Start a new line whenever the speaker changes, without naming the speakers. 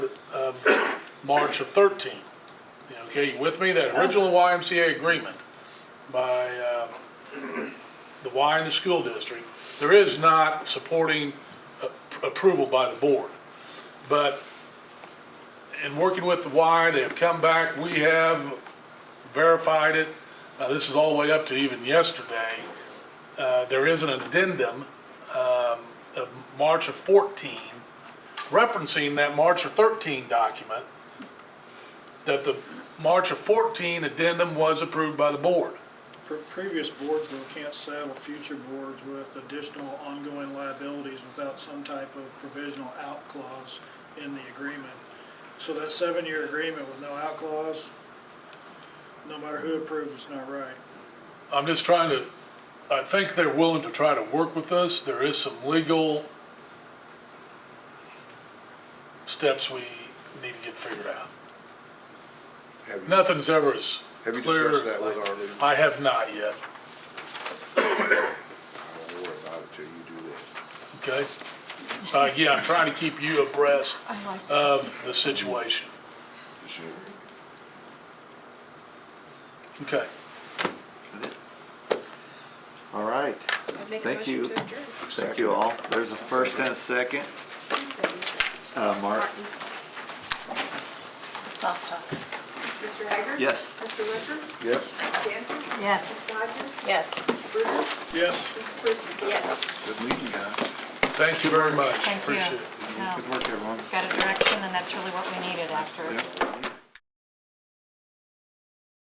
um, March of 13. Okay, you with me? That original YMCA agreement by uh, the Y and the school district, there is not supporting a- approval by the board. But in working with the Y, they have come back, we have verified it. Uh, This is all the way up to even yesterday. Uh, There is an addendum um, of March of 14 referencing that March of 13 document, that the March of 14 addendum was approved by the board.
Pre- Previous boards, though, can't saddle future boards with additional ongoing liabilities without some type of provisional out clause in the agreement. So that seven-year agreement with no out clause, no matter who approves, it's not right.
I'm just trying to, I think they're willing to try to work with us. There is some legal steps we need to get figured out.
Have you,
Nothing's ever as
have you
clear.
discussed that with our legal? I
I have not yet,
don't worry about it till you do that.
okay? Uh, yeah, I'm trying to keep you abreast
I like that.
of the situation, okay?
All right.
I'd make a
Thank
motion
you.
to adjourn.
Thank you all. There's a first and a second. Uh, Mark?
Martin.
Soft talk.
Mr. Hager?
Yes.
Mr. Ledford?
Yep,
Mr. Danforth?
Yes.
Mrs. Hodges?
Yes.
Bruder?
Yes?
Mrs. Priestley?
Yes.
good meeting you guys.
Thank you very much,
Thank you.
appreciate it.
No,
Good work, everyone.
Got a direction, and that's really what we needed after
Yep.